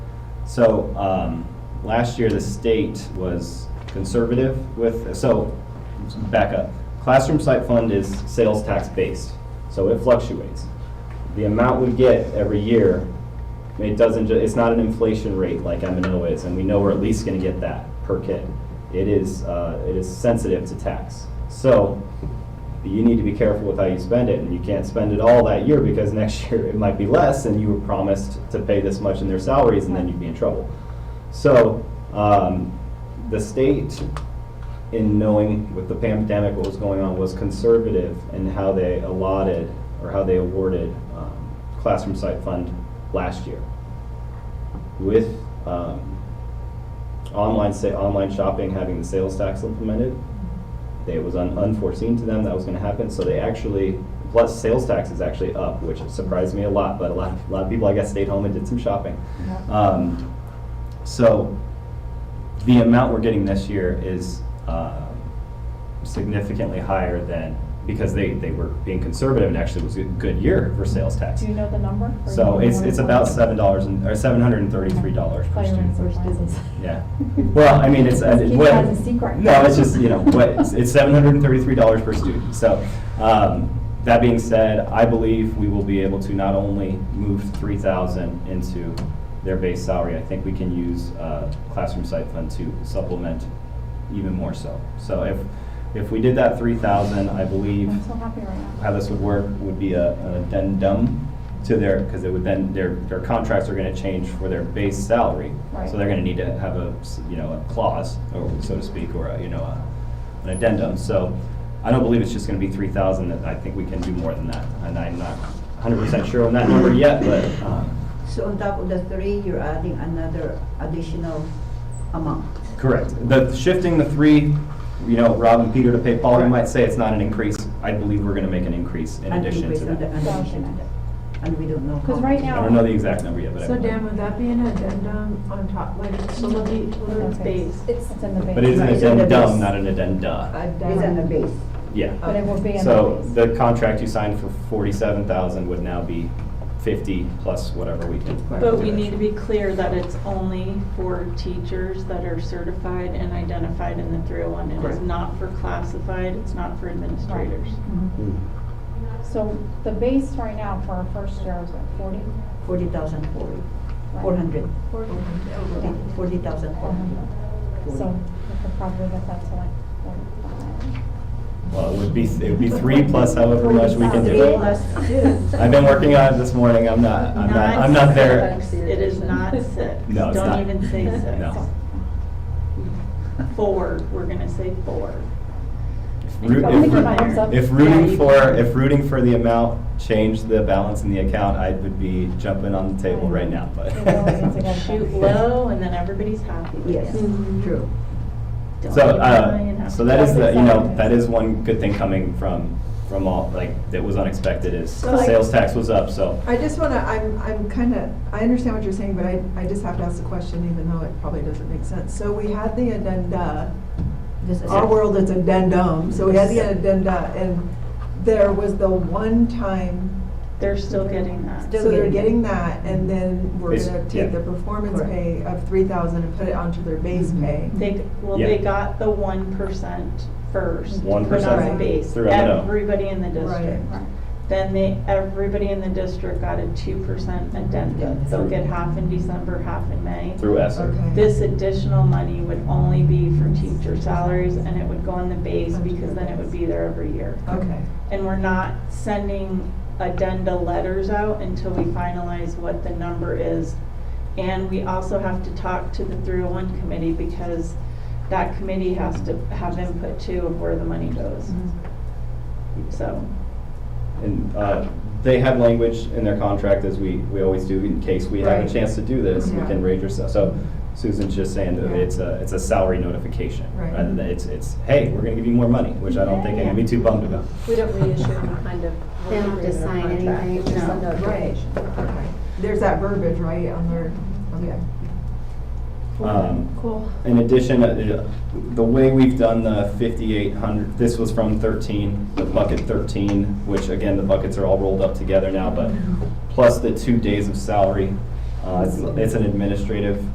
So, um, last year, the state was conservative with, so, back up. Classroom site fund is sales tax based, so it fluctuates. The amount we get every year, it doesn't, ju- it's not an inflation rate like M and O is, and we know we're at least gonna get that per kid. It is, uh, it is sensitive to tax. So, you need to be careful with how you spend it, and you can't spend it all that year because next year it might be less, and you were promised to pay this much in their salaries, and then you'd be in trouble. So, um, the state, in knowing with the pandemic what was going on, was conservative in how they allotted or how they awarded um, classroom site fund last year. With um, online sa- online shopping having the sales tax implemented, it was un- unforeseen to them that was going to happen, so they actually, plus sales tax is actually up, which surprised me a lot, but a lot, a lot of people, I guess, stayed home and did some shopping. Yeah. Um, So the amount we're getting this year is um, significantly higher than, because they, they were being conservative and actually was a good year for sales tax. Do you know the number? or do So you it's, wanna- it's about seven dollars and, or seven hundred and thirty-three dollars per Fire and student. force disease. Yeah. Well, I mean, it's. Let's it- keep what- that as a secret. No, it's just, you know, what, it's- it's seven hundred and thirty-three dollars per student. So, um, that being said, I believe we will be able to not only move three thousand into their base salary, I think we can use, uh, classroom site fund to supplement even more so. So if, if we did that three thousand, I believe I'm so happy right now. how this would work would be a an addendum to their, because it would then, their, their contracts are gonna change for their base salary. So Right. they're gonna need to have a, s- you know, a clause, or so to speak, or a, you know, a- an addendum. So I don't believe it's just gonna be three thousand, I think we can do more than that. And I'm not hundred percent sure on that number yet, but, um, So on top of the three, you're adding another additional amount. correct. The, shifting the three, you know, Rob and Peter to pay Paul, you might say it's not an increase. I believe we're gonna make an increase in An addition increase to on the- that. an addition to that. And we don't know. how 'Cause right much. I don't know the exact number yet, but I So believe. Dan, would that be an addendum on top, like, so what do you, what are the Okay. base? It's in the base. But it is an Right, so the addendum, base- not an addenda. It's on the base. Yeah. But it will be in the base. So the contract you signed for forty-seven thousand would now be fifty plus whatever we can. But we need to be clear that it's only for teachers that are certified and identified in the 301. It is Correct. not for classified, it's not for administrators. So the base right now for our first year is what, forty? Forty thousand forty, four hundred, forty thousand four hundred. Uh-huh. So we could probably get that to like forty-five. Well, it would be, it would be three plus however much we can Three do. plus two. I've been working on it this morning, I'm not, I'm not, I'm not there. six. It is not six. No, it's not. Don't even say six. No. Four, we're gonna say four. Root- I'm gonna if give root- a thumbs up. If Yeah, rooting you for, can. if rooting for the amount changed the balance in the account, I would be jumping on the table right now, but. We always get together. Shoot low and then everybody's happy. Yes, Mhm. true. Don't So, even lie uh, and so have- that is the, you know, That's that is one good thing coming from, from all, like, that was unexpected is Well, like- sales tax was up, so. I just want to, I'm, I'm kind of, I understand what you're saying, but I, I just have to ask the question, even though it probably doesn't make sense. So we had the addenda, This is- our world is addendum, so we had the addenda, and there was the one-time, They're still getting that. Still so they're getting it. getting that, and then we're Base- going to take yeah. the performance Correct. Mm-hmm. pay of three thousand and put it onto their base pay. They, well, Yeah. they got the one percent first. 1% Put on the base, through M&O. everybody in the district. Right. Then they, everybody in the district got a two percent addendum. They'll get half in December, half in May. Through ESER. Okay. This additional money would only be for teacher salaries and it would go on the base because then it would be there every year. Okay, And we're not sending addenda letters out until we finalize what the number is. And we also have to talk to the 301 committee because that committee has to have input too of where the money goes. Mm-hmm. So, And, uh, they have language in their contract as we, we always do in case we have a Right. chance to do this, we Yeah. can raise yourself. So Susan's just saying that Yeah. it's a, it's a salary notification. Right. Rather than it's, it's, hey, we're gonna give you more money, which I don't think I'm gonna be too bummed about. We don't reissue any kind of. They don't have to sign anything, it's just a No. right, notification. okay. There's that verbiage, right, on their, okay. Um, Cool. In addition, uh, the way we've done the fifty-eight hundred, this was from thirteen, the bucket thirteen, which again, the buckets are all rolled up Mm-hmm. together now, but plus the two days of salary, uh, it's, it's an administrative